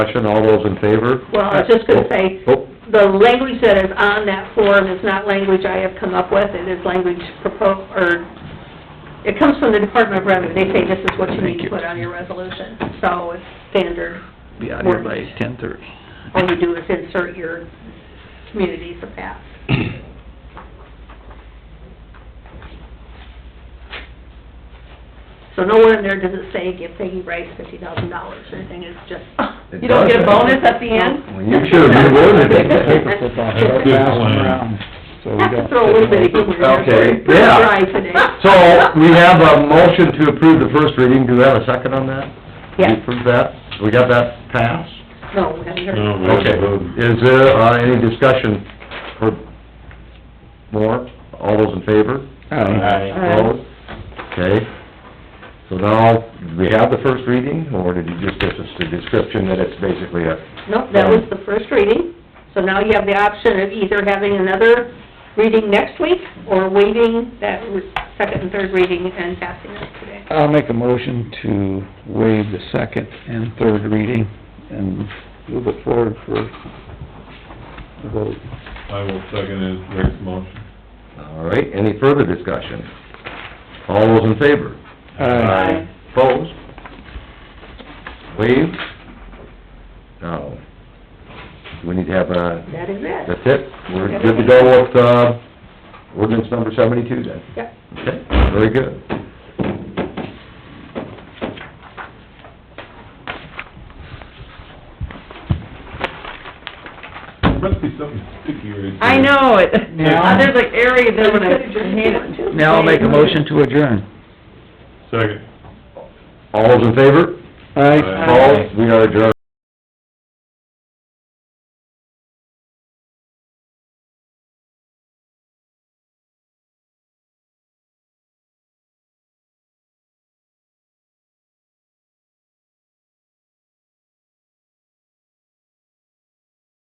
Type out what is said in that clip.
Discussion, all those in favor? Well, I was just gonna say, Oh, the language that is on that form is not language I have come up with, it is language proposed, or, it comes from the Department of Revenue, they say this is what you need Thank to you. put on your resolution, so it's standard. Be out here by ten thirty. All you do is insert your communities of that. oh. So nowhere in there does it say give Peggy Rice fifty thousand dollars or anything, it's just, It you don't get a doesn't. bonus at the end? You should have rewarded it. Have to throw a little bit of humor in there, Okay, we're pretty yeah. dry today. So, we have a motion to approve the first reading, do we have a second on that? Yes. We approve that, we got that passed? No, we haven't heard. No, we Okay, haven't is voted. there, uh, any discussion for more? All those in favor? Aye. Opposed? Okay, so now, do we have the first reading, or did you just give us the description that it's basically a... No, that was the first reading, so now you have the option of either having another reading next week, or waiving that re- second and third reading and passing it today. I'll make a motion to waive the second and third reading and move it forward for a vote. I will second it, Rick's motion. All right, any further discussion? All those in favor? Aye. Opposed? Waived? No. We need to have a, That is it. that's it, we're good to go with, uh, ordinance number seventy-two then? Yep. Okay, very good. There must be something sticky right there. I know it. Yeah. There's like area there when I Just hand one, it. too. Now I'll make a motion to adjourn. Second. All those in favor? Aye. Opposed? We are adjourned.